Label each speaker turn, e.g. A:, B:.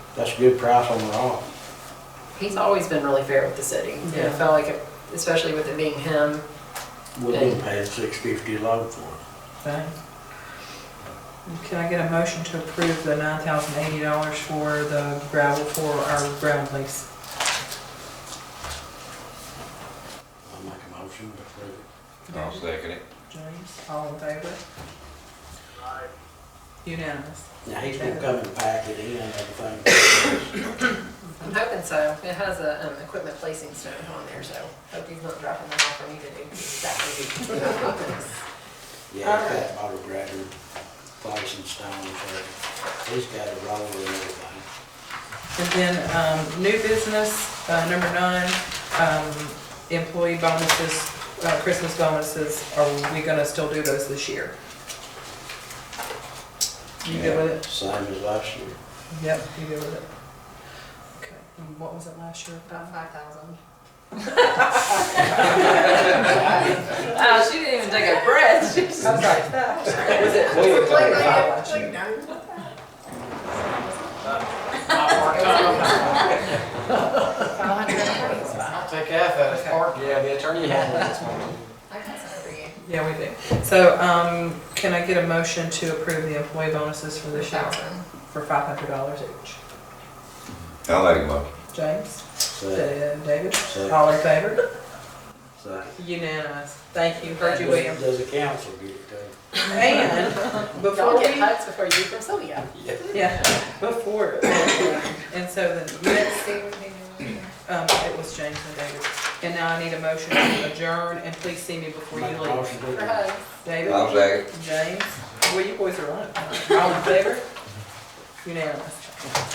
A: That's a good price on the rock.
B: He's always been really fair with the city. And
C: Yeah.
B: it felt like, it- especially with it being him,
A: We didn't pay six fifty low for it.
C: Okay. Can I get a motion to approve the nine thousand eighty dollars for the gravel for our gravel lease?
A: I'll make a motion to approve it.
D: I'll second it.
C: James, all in favor? Unanimous.
A: Now, he's gonna come and pack it in and everything.
B: I'm hoping so. It has a, um, equipment placing stone on there, so hope he's not dropping that off for me to do. That would be-
A: Yeah, he's got motor grader, place and stones, everything. he's got a roller and everything.
C: And then, um, new business, uh, number nine, um, employee bonuses, uh, Christmas bonuses, are we gonna still do those this year? You good with it?
A: Same as last year.
C: Yep, you good with it? Okay, and what was it last year?
B: About five thousand. Wow, Oh, she didn't even take a breath. She was
C: I'm sorry. Was it?
E: We were talking about last year.
B: like,
E: I'll take half of it,
C: Okay.
E: Park, yeah, the attorney had it this morning.
B: I got something for you.
C: Yeah, we do. So, um, can I get a motion to approve the employee bonuses for this year
B: Thousand.
C: for five hundred dollars each?
D: I'll make a motion.
C: James,
A: So,
C: Dan, David,
A: Second.
C: all in favor?
A: so.
C: Unanimous. Thank you, heard you, William.
A: Does the council get it done?
C: And before
B: Y'all
C: we,
B: get hugs before you from Sylvia.
C: yeah, before, and so the next, um, it was James and David. And now I need a motion to adjourn, and please see me before
A: Make
C: you
A: a
C: leave.
A: motion to
B: For
A: adjourn.
B: hugs.
C: David?
D: I'll second.
C: James? Well, you boys are on it. All in favor? Unanimous.